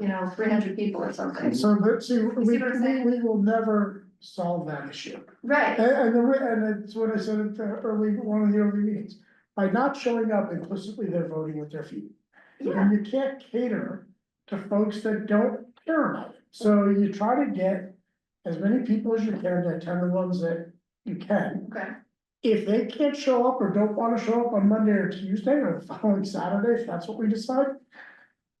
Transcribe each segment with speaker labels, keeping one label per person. Speaker 1: you know, three hundred people or something.
Speaker 2: So, but see, we,
Speaker 1: see what I'm
Speaker 2: we,
Speaker 1: saying?
Speaker 2: we will never solve that issue.
Speaker 1: Right,
Speaker 2: And, and the, re- and that's what I said at the early, one of the early meetings, by not showing up implicitly, they're voting with their feet.
Speaker 1: yeah,
Speaker 2: And you can't cater to folks that don't care about it, so you try to get as many people as you can, that ten of ones that you can.
Speaker 1: okay,
Speaker 2: If they can't show up or don't wanna show up on Monday or Tuesday or the following Saturday, if that's what we decide.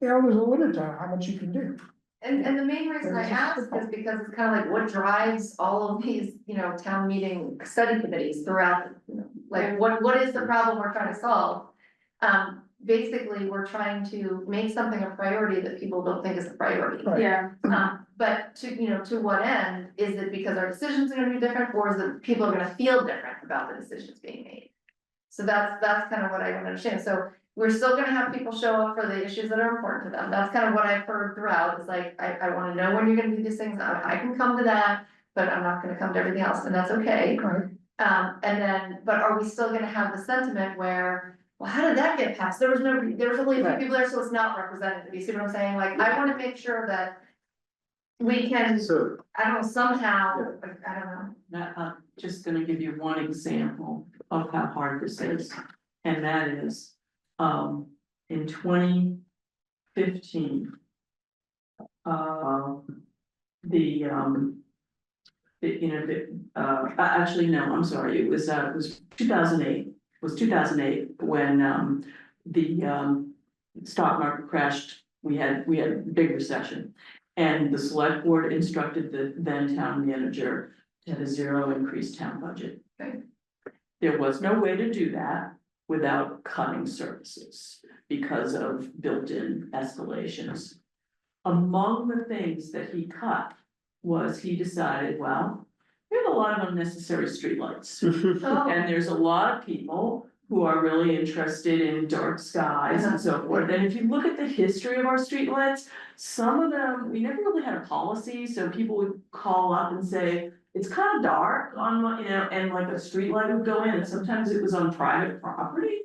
Speaker 2: You know, there's a limit to how much you can do.
Speaker 1: and, and the main reason I ask is because it's kind of like what drives all of these, you know, town meeting study committees throughout, you know, like, what, what is the problem we're trying to solve? Um, basically, we're trying to make something a priority that people don't think is a priority.
Speaker 2: Right.
Speaker 3: Yeah,
Speaker 1: Um, but to, you know, to what end, is it because our decisions are gonna be different, or is it people are gonna feel different about the decisions being made? So that's, that's kind of what I don't understand, so we're still gonna have people show up for the issues that are important to them, that's kind of what I've heard throughout, it's like, I, I wanna know when you're gonna do these things, I, I can come to that. But I'm not gonna come to everything else, and that's okay,
Speaker 2: Right.
Speaker 1: um, and then, but are we still gonna have the sentiment where, well, how did that get passed? There was no, there was only a few
Speaker 3: Right.
Speaker 1: people there, so it's not representative, you see what I'm saying? Like, I wanna make sure that we can,
Speaker 4: So,
Speaker 1: I don't know, somehow, I don't know.
Speaker 5: That, I'm just gonna give you one example of how hard this is, and that is, um, in twenty fifteen. Uh, the, um. The, you know, the, uh, a- actually, no, I'm sorry, it was, uh, it was two thousand eight, was two thousand eight when, um, the, um. Stock market crashed, we had, we had a big recession, and the select board instructed the then town manager to have a zero increased town budget.
Speaker 1: Okay.
Speaker 5: There was no way to do that without cutting services because of built-in escalations. Among the things that he cut was he decided, well, we have a lot of unnecessary streetlights.
Speaker 1: Oh,
Speaker 5: And there's a lot of people who are really interested in dark skies and so forth, and if you look at the history of our streetlights. Some of them, we never really had a policy, so people would call up and say, it's kind of dark on, my-" you know, and like a streetlight would go in, and sometimes it was on private property.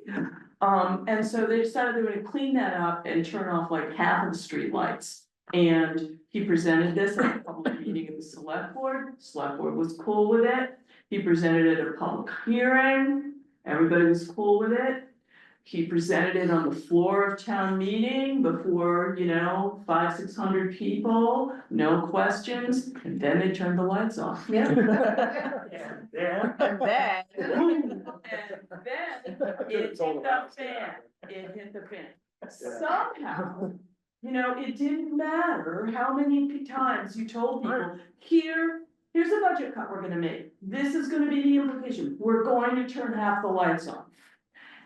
Speaker 5: Um, and so they decided they were gonna clean that up and turn off like half of the streetlights. And he presented this at a public meeting of the select board, select board was cool with it. He presented it at a public hearing, everybody was cool with it. He presented it on the floor of town meeting before, you know, five, six hundred people, no questions, and then they turned the lights off.
Speaker 1: yeah.
Speaker 4: yeah.
Speaker 3: and that,
Speaker 5: And then it hit the fan, it hit the fan. Somehow, you know, it didn't matter how many p- times you told people, here, here's a budget cut we're gonna make. This is gonna be the implication, we're going to turn half the lights on.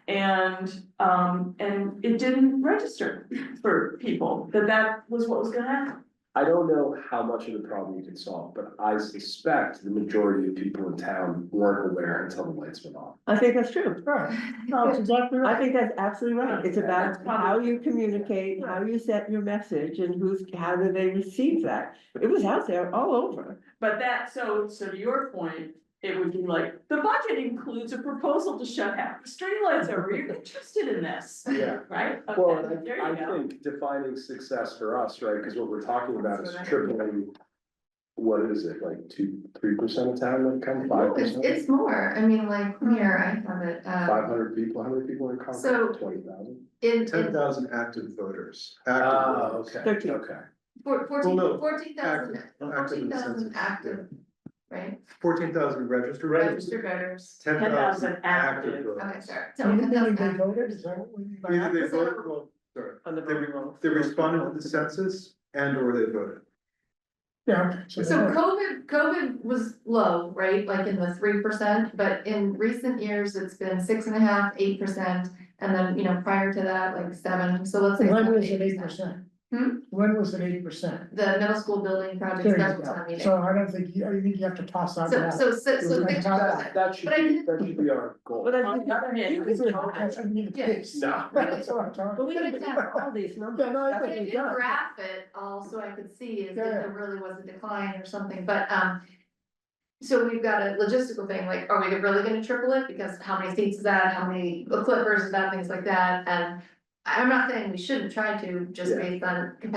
Speaker 5: And, um, and it didn't register for people that that was what was gonna happen.
Speaker 4: I don't know how much of the problem you can solve, but I suspect the majority of people in town weren't aware until the lights went off.
Speaker 3: I think that's true.
Speaker 2: Right, that's exactly
Speaker 3: I
Speaker 2: right.
Speaker 3: think that's absolutely right. It's about
Speaker 5: That's
Speaker 3: how
Speaker 5: probably-
Speaker 3: you communicate, how you set your message and who's, how do they receive that? It was out there all over.
Speaker 5: But that, so, so to your point, it would be like, the budget includes a proposal to shut half the streetlights over, you're interested in this,
Speaker 4: Yeah.
Speaker 5: right?
Speaker 4: Well,
Speaker 5: Okay,
Speaker 4: and
Speaker 5: there
Speaker 4: I,
Speaker 5: you
Speaker 4: I
Speaker 5: go.
Speaker 4: think defining success for us, right, because what we're talking about is
Speaker 1: That's what I-
Speaker 4: tripling. What is it, like two, three percent of town income, five
Speaker 1: It's,
Speaker 4: percent?
Speaker 1: it's more, I mean, like,
Speaker 6: Hmm.
Speaker 1: here, I have it,
Speaker 4: Five
Speaker 1: uh,
Speaker 4: hundred people, how many people are in
Speaker 1: So-
Speaker 4: Concord, twenty thousand?
Speaker 1: in,
Speaker 6: Ten
Speaker 1: in
Speaker 6: thousand active voters.
Speaker 4: Ah,
Speaker 6: Active voters.
Speaker 4: okay,
Speaker 3: Thirteen.
Speaker 4: okay.
Speaker 1: four-
Speaker 6: Well, no,
Speaker 1: fourteen, fourteen thousand,
Speaker 6: Active- active in
Speaker 1: fourteen
Speaker 6: the
Speaker 1: thousand
Speaker 6: census.
Speaker 1: active, right?
Speaker 6: Fourteen thousand registered voters.
Speaker 1: Registered voters,
Speaker 6: Ten
Speaker 5: 10,000
Speaker 6: thousand
Speaker 5: active.
Speaker 6: active
Speaker 1: okay,
Speaker 6: voters.
Speaker 1: sorry.
Speaker 2: So you think
Speaker 1: 10,000
Speaker 2: they
Speaker 1: active.
Speaker 2: voted, is that what we mean by
Speaker 6: Either they
Speaker 1: Is that-
Speaker 6: voted, well, sorry,
Speaker 3: On the
Speaker 6: they, re-
Speaker 3: voting roll.
Speaker 6: they responded to the census and or they voted.
Speaker 2: Yeah.
Speaker 1: So COVID, COVID was low, right, like in the three percent, but in recent years, it's been six and a half, eight percent. And then, you know, prior to that, like seven, so let's say.
Speaker 2: When
Speaker 1: seven,
Speaker 2: was it eight
Speaker 1: 8%.
Speaker 2: percent?
Speaker 1: Hmm?
Speaker 2: When was it eight percent?
Speaker 1: The middle school building project
Speaker 2: There you
Speaker 1: special town
Speaker 2: go.
Speaker 1: meeting.
Speaker 2: So I don't think, you- I think you have to toss out
Speaker 1: So,
Speaker 2: that.
Speaker 1: so, si-
Speaker 2: It was
Speaker 1: so
Speaker 2: like
Speaker 1: six
Speaker 2: top
Speaker 1: percent.
Speaker 4: That, that should
Speaker 1: But I
Speaker 4: be,
Speaker 1: think-
Speaker 4: that should be our goal.
Speaker 3: But I
Speaker 5: On
Speaker 3: think,
Speaker 5: the other hand,
Speaker 2: You
Speaker 5: it was
Speaker 2: could- that
Speaker 5: COVID.
Speaker 2: shouldn't be the
Speaker 1: Yeah.
Speaker 2: case.
Speaker 4: No.
Speaker 2: That's what I'm talking
Speaker 3: but we
Speaker 1: But
Speaker 3: didn't
Speaker 1: it's-
Speaker 3: have all these numbers.
Speaker 2: Yeah, no, I
Speaker 3: That's
Speaker 1: But
Speaker 3: what
Speaker 1: I
Speaker 3: we
Speaker 1: did
Speaker 3: got.
Speaker 1: graph it all so I could see is if
Speaker 2: Yeah.
Speaker 1: there really was a decline or something, but um. So we've got a logistical thing, like, are we really gonna triple it? Because how many seats is that? How many clippers is that? Things like that, and. I'm not saying we shouldn't try to, just
Speaker 4: Yeah.
Speaker 1: based on capacity